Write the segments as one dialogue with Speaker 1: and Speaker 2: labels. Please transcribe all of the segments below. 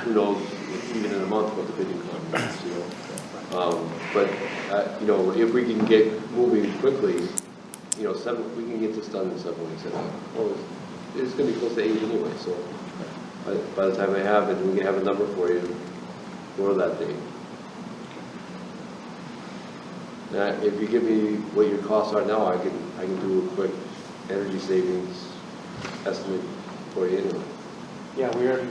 Speaker 1: who knows, even in a month, what the bidding conference, you know? Um, But, uh, you know, if we can get moving quickly, you know, seven, we can get this done in seven weeks, I think. Well, it's- it's gonna be close to eight anyway, so by, by the time I have it, we can have a number for you for that date. Uh, if you give me what your costs are now, I can, I can do a quick energy savings estimate for you anyway.
Speaker 2: Yeah, we already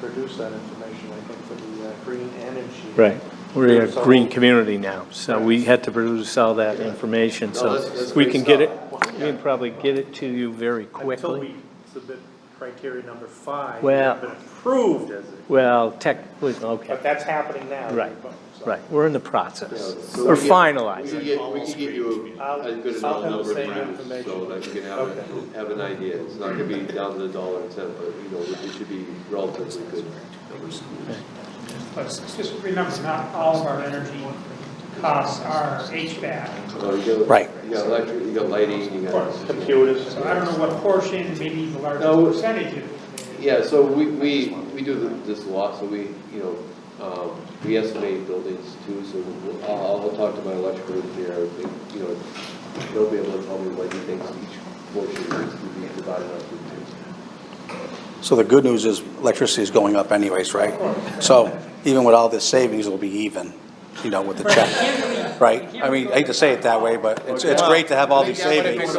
Speaker 2: produced that information, I think, for the uh, green energy.
Speaker 3: Right. We're a
Speaker 2: So-
Speaker 3: green community now, so we had to produce all that information,
Speaker 1: No,
Speaker 3: so
Speaker 1: that's- that's
Speaker 3: we
Speaker 1: great
Speaker 3: can get it,
Speaker 1: stuff.
Speaker 3: we can probably get it to you very
Speaker 2: Until we
Speaker 3: quickly.
Speaker 2: submit criteria number five.
Speaker 3: Well-
Speaker 2: It's been approved as it,
Speaker 3: Well, tech, okay,
Speaker 2: but that's happening now.
Speaker 3: Right,
Speaker 2: So-
Speaker 3: right, we're in the process,
Speaker 1: Yeah, so
Speaker 3: or
Speaker 1: we get- We
Speaker 3: finalized.
Speaker 1: can get, we can get you
Speaker 2: I'll-
Speaker 1: a a good
Speaker 2: I'll
Speaker 1: enough
Speaker 2: have the
Speaker 1: number of
Speaker 2: same
Speaker 1: grams, so
Speaker 2: information.
Speaker 1: that you can
Speaker 2: Okay.
Speaker 1: have, a- have an idea. It's not gonna be down to the dollar and cent, but, you know, it should be relatively good. numbers.
Speaker 4: But just remember, not all of our energy costs are HVAC.
Speaker 1: So you got-
Speaker 3: Right.
Speaker 1: You got electric, you got lighting, you got.
Speaker 2: Computers.
Speaker 4: So I don't know what portion, maybe the
Speaker 1: No.
Speaker 4: largest percentage of.
Speaker 1: Yeah, so we, we, we do th- this a lot, so we, you know, um, we estimate buildings too, so we'll- I'll, I'll talk to my electrical engineer, I think, you know, they'll be able to tell me what he thinks each portion is to be divided up into.
Speaker 5: So the good news is electricity is going up anyways, right? So even with all this savings, it'll be even, you know, with the check, right? I mean, I hate to say it that way, but it's, it's great to have all these savings.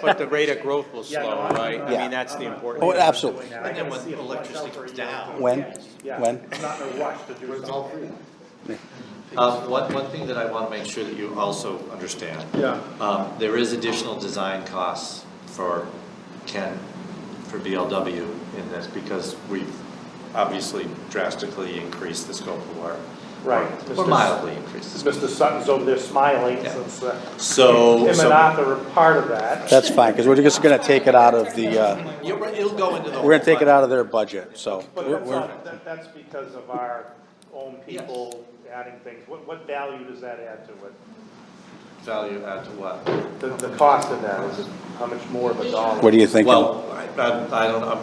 Speaker 3: But the rate of growth will slow, right?
Speaker 5: I mean,
Speaker 3: that's the important.
Speaker 5: Oh, absolutely.
Speaker 2: And then when electricity goes down.
Speaker 5: When?
Speaker 2: Yeah.
Speaker 5: When?
Speaker 2: I'm not in a rush to do something.
Speaker 6: Um, One, one thing that I want to make sure that you also understand,
Speaker 2: Yeah.
Speaker 6: um, there is additional design costs for Ken, for BLW in this, because we've obviously drastically increased the scope of work.
Speaker 2: Right.
Speaker 6: Or mildly increased the scope.
Speaker 2: Mr. Sutton's over there smiling,
Speaker 6: Yeah.
Speaker 2: since uh,
Speaker 6: So,
Speaker 2: him and
Speaker 6: so,
Speaker 2: Arthur are part of that.
Speaker 5: That's fine, because we're just gonna take it out of the, uh,
Speaker 6: Yeah, but it'll go into the.
Speaker 5: we're gonna take it
Speaker 6: whole
Speaker 5: out of their budget, so.
Speaker 2: But
Speaker 5: we're-
Speaker 2: that's
Speaker 5: we're-
Speaker 2: not, that, that's because of our own people adding things. What, what value does that add to it?
Speaker 6: Value add to what?
Speaker 2: The, the cost of that is how much more of a dollar?
Speaker 5: What are you thinking?
Speaker 6: Well, I, I I don't, I'm,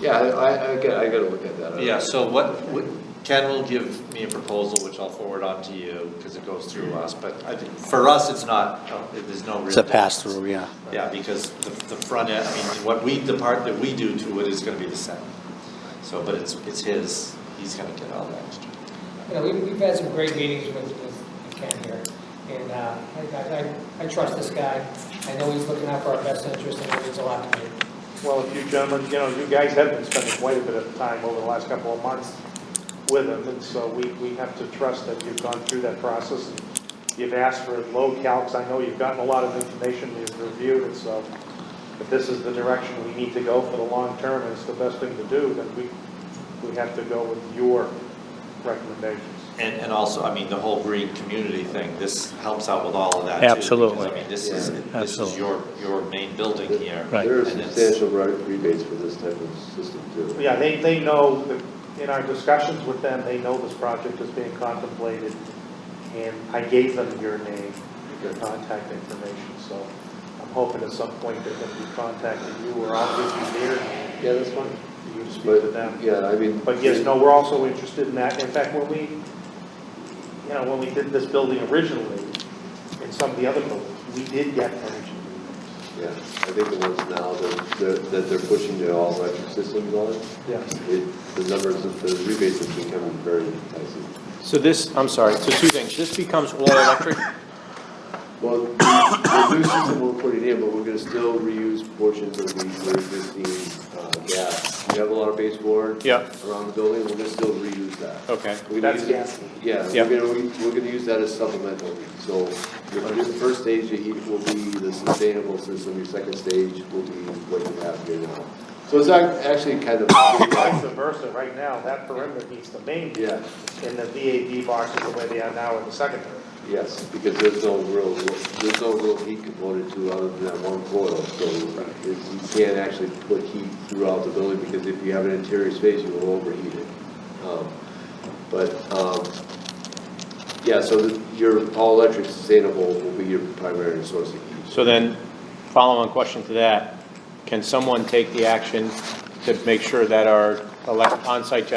Speaker 1: Yeah, I, I, I gotta, I gotta look at that. I-
Speaker 6: Yeah, so what, what- Ken will give me a proposal, which I'll forward on to you, because it goes through us, but I think, for us, it's not, no, there's no real.
Speaker 5: It's a pass-through, yeah.
Speaker 6: difference. Yeah, because the, the front end, I mean, what we, the part that we do to it is gonna be the same. So, but it's, it's his, he's gonna get all that extra.
Speaker 7: You know, we- we've had some great meetings with with Ken here, and uh, I- I I- I trust this guy. I know he's looking out for our best interest, and it means a lot to me.
Speaker 2: Well, if you gentlemen, you know, you guys have been spending quite a bit of time over the last couple of months with him, and so we, we have to trust that you've gone through that process. and You've asked for low calcs, I know you've gotten a lot of information, you've reviewed it, so if this is the direction we need to go for the long term, and it's the best thing to do, then we, we have to go with your recommendations.
Speaker 6: And, and also, I mean, the whole green community thing, this helps out with all of that too. because,
Speaker 3: Absolutely.
Speaker 6: I mean, this is,
Speaker 1: Yeah.
Speaker 6: this is
Speaker 3: Absolutely.
Speaker 6: your, your main building here.
Speaker 3: Right.
Speaker 1: There are
Speaker 6: and it's-
Speaker 1: substantial re- rebates for this type of system too.
Speaker 2: Yeah, they, they know, that in our discussions with them, they know this project is being contemplated, and I gave them your name, your contact information, so I'm hoping at some point they're gonna be contacting you, or I'll give you their name,
Speaker 1: Yeah, that's fine.
Speaker 2: for you to speak to
Speaker 1: But,
Speaker 2: them.
Speaker 1: yeah, I mean.
Speaker 2: But yes, no, we're also interested in that, in fact, when we, you know, when we did this building originally, and some of the other buildings, we did get energy rebates.
Speaker 1: Yeah, I think the ones now that, they're- that they're pushing the all electric systems on,
Speaker 2: Yes.
Speaker 1: it, the numbers of the rebates have become very enticing.
Speaker 8: So this, I'm sorry, so two things, this becomes all electric,
Speaker 1: Well, the new system we're putting in, but we're gonna still reuse portions of the the existing, uh, gas. We have a lot of base water.
Speaker 8: Yeah.
Speaker 1: Around the building, we're gonna still reuse that.
Speaker 8: okay.
Speaker 1: We're gonna
Speaker 2: That's
Speaker 1: use it-
Speaker 2: gassy.
Speaker 1: Yeah,
Speaker 8: Yeah.
Speaker 1: we're gonna, we- we're gonna use that as supplemental, so your your first stage you heat will be the sustainable system, your second stage will be what you have here now. So it's act- actually kind
Speaker 2: Vice
Speaker 1: of,
Speaker 2: versa, right now, that perimeter needs the main.
Speaker 1: yeah,
Speaker 2: in the VAB boxes the way they are now in the secondary.
Speaker 1: yes, because there's no real, there's no real heat component to it other than that one coil, so it's- you can't actually put heat throughout the building, because if you have an interior space, you will overheat it. Um, But, um, yeah, so the- your all-electric sustainable will be your primary source of heat.
Speaker 8: So then, follow-on question to that, can someone take the action to make sure that our elec- on-site